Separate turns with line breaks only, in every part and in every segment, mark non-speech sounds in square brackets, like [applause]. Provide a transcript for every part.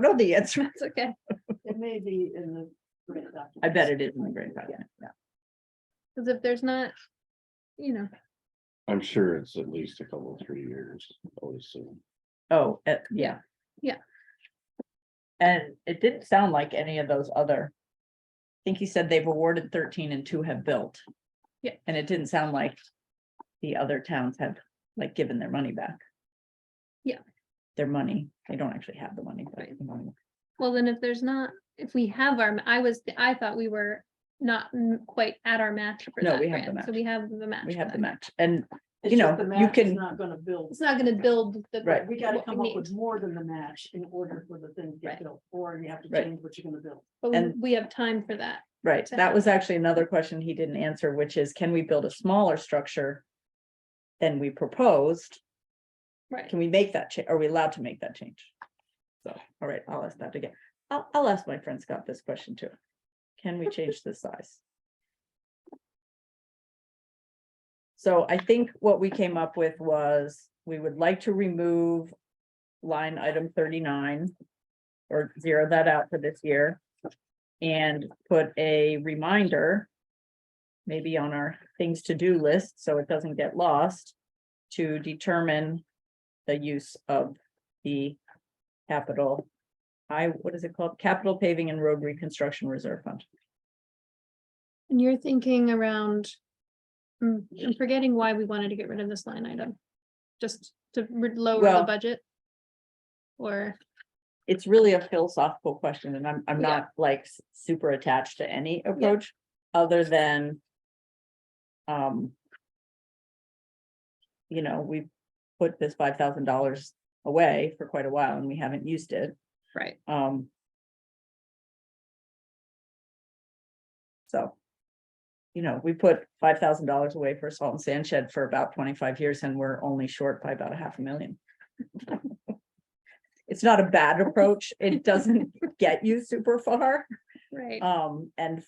know the answer.
That's okay.
It may be in the. grant
[laughs] I bet
documents.
it is in the grant document. Yeah.
Cause if there's not, you know,
I'm sure it's at least a couple, three years, always soon.
Oh, eh, yeah.
Yeah.
And it didn't sound like any of those other. I think he said they've awarded thirteen and two have built.
Yeah.
And it didn't sound like the other towns have like given their money back.
Yeah.
Their money, they don't actually have the money, but.
Right.
the money.
well, then if there's not, if we have our, I was, I thought we were not m- quite at our match for
No,
that
we have the
grant, so
match.
we have the match.
We
for
have the
that.
match and
It's
you
just
know,
the
you
match is
can-
Not gonna build.
It's not gonna build the.
Right.
We gotta
what we
come up
need.
with more than the match in order for the thing to
Right.
get built, or you have to
Right.
change what you're gonna build.
But we-
and-
we have time for that.
Right,
to
that
have
was actually another question he didn't answer, which is can we build a smaller structure? Than we proposed,
Right.
can we make that change? Are we allowed to make that change? So, all right, I'll ask that again. I'll, I'll ask my friend Scott this question too. Can we change the size? So I think what we came up with was, we would like to remove line item thirty-nine. Or zero that out for this year. And put a reminder. Maybe on our things to do list, so it doesn't get lost. To determine the use of the capital. I, what is it called? Capital Paving and Road Reconstruction Reserve Fund.
And you're thinking around. mm, I'm forgetting why we wanted to get rid of this line item. Just to re- lower the
Well-
budget. Or,
It's really a philosophical question and I'm, I'm
Yeah.
not like s- super attached to any approach other than. Um. You know, we've put this five thousand dollars away for quite a while and we haven't used it.
right,
Um. So. You know, we put five thousand dollars away for a salt and sand shed for about twenty-five years and we're only short by about a half a million. [laughs] It's not a bad approach. It doesn't get you super far.
right,
Um, and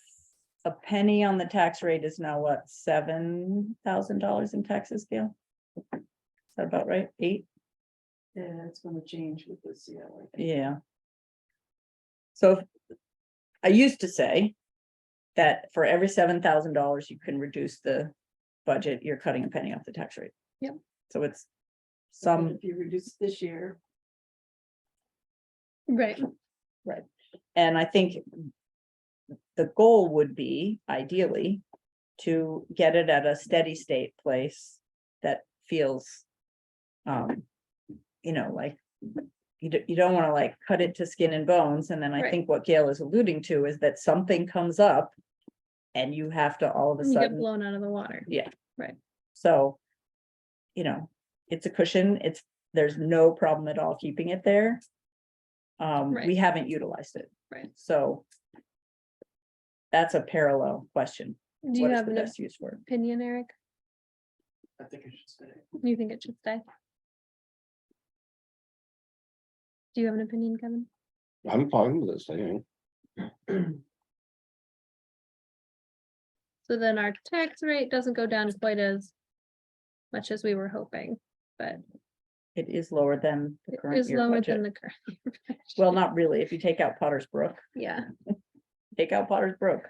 a penny on the tax rate is now what, seven thousand dollars in taxes, Gail? Is that about right? Eight?
Yeah, it's gonna change with the CLA.
Yeah. So if- I used to say that for every seven thousand dollars, you can reduce the budget, you're cutting a penny off the tax rate.
Yep.
So it's
And
some,
If you reduce this year,
right,
and I think the goal would be ideally to get it at a steady state place that feels um, you know, like you don't, you don't want to like cut it to skin and bones. And then I
Right.
think what Gail is alluding to is that something comes up and you have to all of a
you get
sudden,
blown out of the water,
so you know, it's a cushion. It's, there's no problem at all keeping it there. Um,
Right.
we haven't utilized it.
right?
So that's a parallel question.
Do you
What is
have
the
an
best use for it?
opinion, Eric?
I think I should [clears throat] say.
You think it should stay? Do you have an opinion, Kevin?
I'm fine with this thing.
So then our tax rate doesn't go down quite as much as we were hoping, but
It is lower than the
it
current
is
year
lower
budget.
than the current. [laughs] year budget.
Well, not really. If you take out Potter's Brook,
Yeah,
take out Potter's Brook,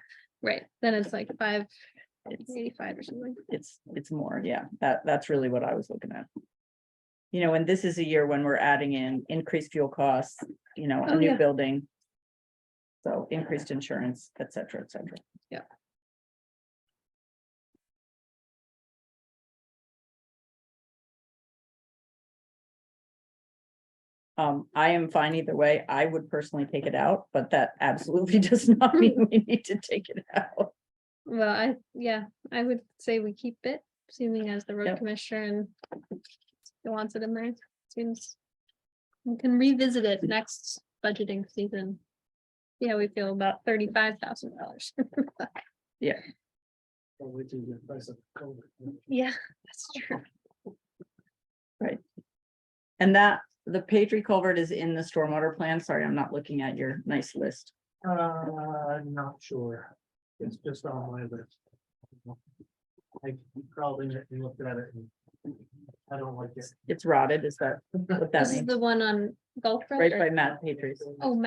right, then it's like five
it's,
eighty-five or something.
it's, it's more, yeah, that, that's really what I was looking at. You know, and this is a year when we're adding in increased fuel costs, you know,
Oh,
a new
yeah.
building. So increased insurance, et cetera, et cetera.
Yeah.
Um, I am fine either way. I would personally take it out, but that absolutely [laughs] does not mean we need to take it out.
Well, I, yeah, I would say we keep it, assuming as the road
Yep.
commissioner and he wants it in there, seems. We can revisit it next budgeting season. See how we feel about thirty-five thousand dollars.
Which is the price of COVID.
Yeah, that's true.
And that, the Patriot culvert is in the stormwater plan. Sorry, I'm not looking at your nice list.
Uh, I'm not sure. It's just on my list. I probably looked at it and
I don't like it.
It's rotted, is that what that
This is
means?
the one on Gulf Road.
Right
or-
by Matt Patrice.
Oh,